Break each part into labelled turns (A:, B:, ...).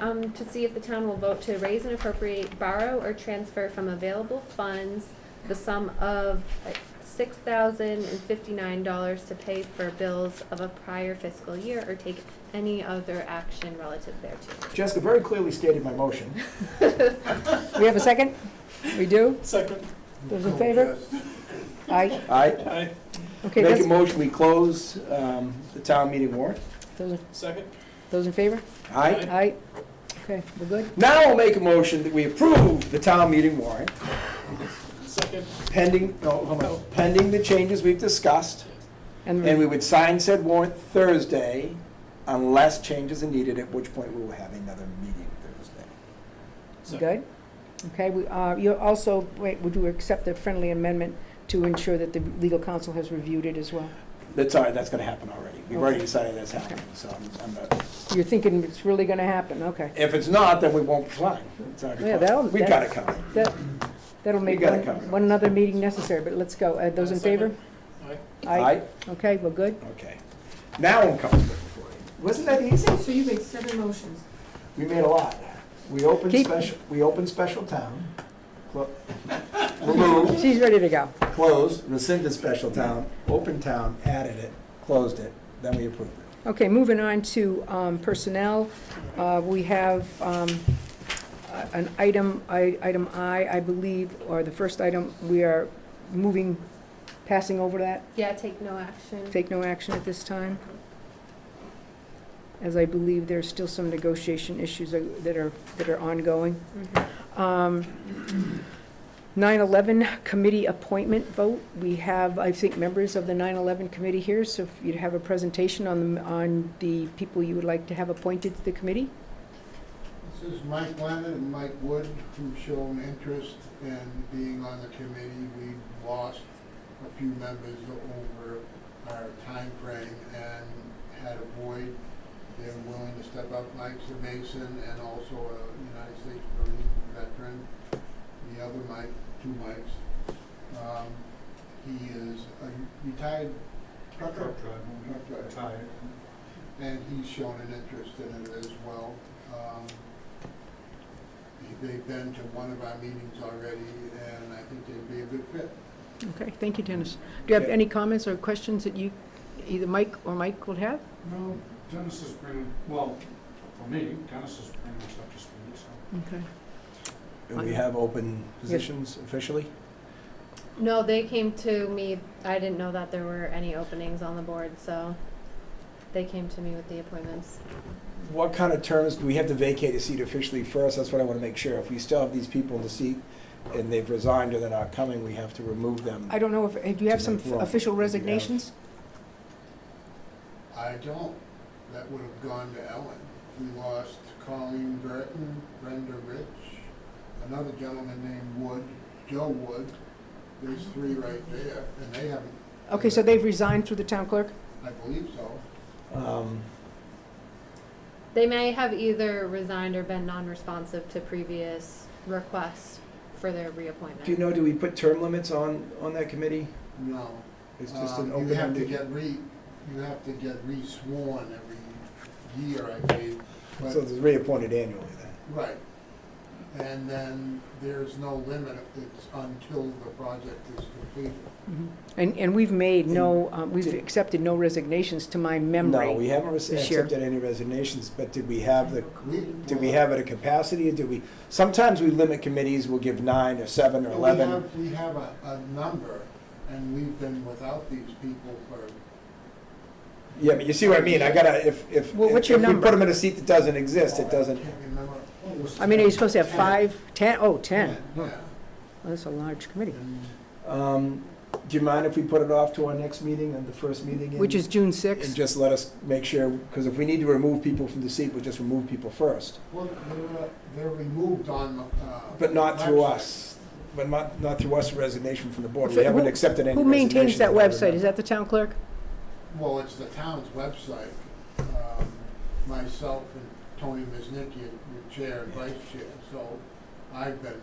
A: Um, to see if the town will vote to raise and appropriate, borrow or transfer from available funds the sum of six thousand and fifty-nine dollars to pay for bills of a prior fiscal year or take any other action relative thereto.
B: Jessica very clearly stated my motion.
C: We have a second? We do?
D: Second.
C: Those in favor? Aye.
B: I
D: Aye.
C: Okay,
B: make a
C: that's,
B: motion, we close um, the town meeting warrant.
C: those in-
D: Second.
C: those in favor?
B: Aye.
C: Aye. Okay, we're good?
B: Now I'll make a motion that we approve the town meeting warrant
D: Second.
B: pending, no, hold on, pending the changes we've discussed. And
C: And
B: we would sign said warrant Thursday unless changes are needed, at which point we will have another meeting Thursday.
C: we're good? Okay, we, uh, you also, wait, would you accept the friendly amendment to ensure that the legal counsel has reviewed it as well?
B: That's all right, that's gonna happen already. We've already
C: Okay.
B: decided that's happening, so I'm, I'm not,
C: You're thinking it's really gonna happen, okay.
B: if it's not, then we won't sign. It's already
C: Yeah,
B: closed.
C: that'll-
B: We
C: that-
B: gotta come.
C: That, that'll make
B: gotta
C: one,
B: cover it.
C: one another meeting necessary, but let's go. Uh, those in favor?
D: Second. Aye.
B: Aye?
C: Okay, we're good?
B: Okay. Now I'm comfortable for you. Wasn't that easy?
E: So you made seven motions.
B: We made a lot. We opened
C: Keep-
B: special, we opened special town, clo- removed,
C: She's ready to go.
B: closed, rescinded special town, opened town, added it, closed it, then we approved it.
C: Okay, moving on to um, personnel, Uh, we have um, a- an item, I- item I, I believe, or the first item, we are moving, passing over that,
A: Yeah, take no action.
C: take no action at this time, as I believe there's still some negotiation issues that that are, that are ongoing.
A: Mhm.
C: Um, 9/11 committee appointment vote. We have, I think, members of the 9/11 committee here, so if you'd have a presentation on, the- on the people you would like to have appointed to the committee.
F: This is Mike Leonard and Mike Wood, who've shown interest in being on the committee. We lost a few members over our time frame and had a void. They're willing to step up. Mike's a Mason and also a United States Marine veteran. The other Mike, two Mikes. Um, He is a retired trucker. Truck driver and he's shown an interest in it as well. Um, They've been to one of our meetings already, and I think they'd be a good fit.
C: Okay, thank you, Dennis. Do you have
B: Yeah.
C: any comments or questions that you, either Mike or Mike would have?
G: No, Dennis is pretty, well, for me, Dennis is pretty much up to speed, so.
C: Okay.
B: And we have open positions officially?
A: No, they came to me, I didn't know that there were any openings on the board, so they came to me with the appointments.
B: What kind of terms, do we have to vacate a seat officially first? That's what I want to make sure. If we still have these people in the seat and they've resigned or they're not coming, we have to remove them.
C: I don't know if, eh, do you have some
B: Just like, well,
C: official
B: we have-
C: resignations?
F: I don't, that would have gone to Ellen. We lost Colleen Burton, Brenda Rich, another gentleman named Wood, Joe Wood. There's three right there, and they haven't,
C: Okay, so they've resigned through the town clerk?
F: I believe so.
B: Um,
A: They may have either resigned or been non-responsive to previous requests for their reappointment.
B: Do you know, do we put term limits on, on that committee?
F: No.
B: It's just an
F: Um, You have to
B: open-ended.
F: get re, you have to get re-sworn every year, I believe. but-
B: So it's reappointed annually then?
F: Right. And then there's no limit, it's until the project is completed.
C: Mhm. And, and we've made no, um, we've accepted no resignations to my memory.
B: No, we haven't rec-
C: this year.
B: accepted any resignations, but did we have the,
F: We-
B: did we have it a capacity, or did we, sometimes we limit committees, we'll give nine or seven or
F: We
B: eleven.
F: have- We have a, a number, and we've been without these people for
B: Yeah, but you see what I mean, I gotta, if, if, if
C: Well, what's your
B: we put
C: number?
B: them in a seat that doesn't exist, it doesn't,
F: Oh, I can't remember.
C: I mean, are you supposed to have five, ten? Oh, ten.
F: Yeah,
C: Well, That's a large committee,
F: and
B: um, do you mind if we put it off to our next meeting, and the first meeting? in-
C: which is June
B: And
C: 6th.
B: just let us make sure, because if we need to remove people from the seat, we'll just remove people first,
F: Well, they're, uh, they're removed on the, uh.
B: but not through
F: website.
B: us, but not, not through us resignation from the board,
C: Who-
B: we haven't accepted any
C: Who
B: resignations
C: maintains that
B: I
C: website?
B: remember.
C: Is that the town clerk?
F: Well, it's the town's website. Um, Myself and Tony Miznicki are the chair and vice chair, so I've been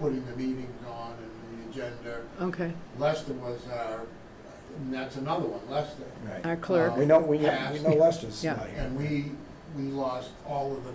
F: putting the meetings on and the agenda.
C: Okay,
F: Lester was our, and that's another one, Lester.
B: Right.
C: our clerk.
B: We know, we know, we know Lester's
C: Yeah.
B: not here.
F: And we we lost all of them.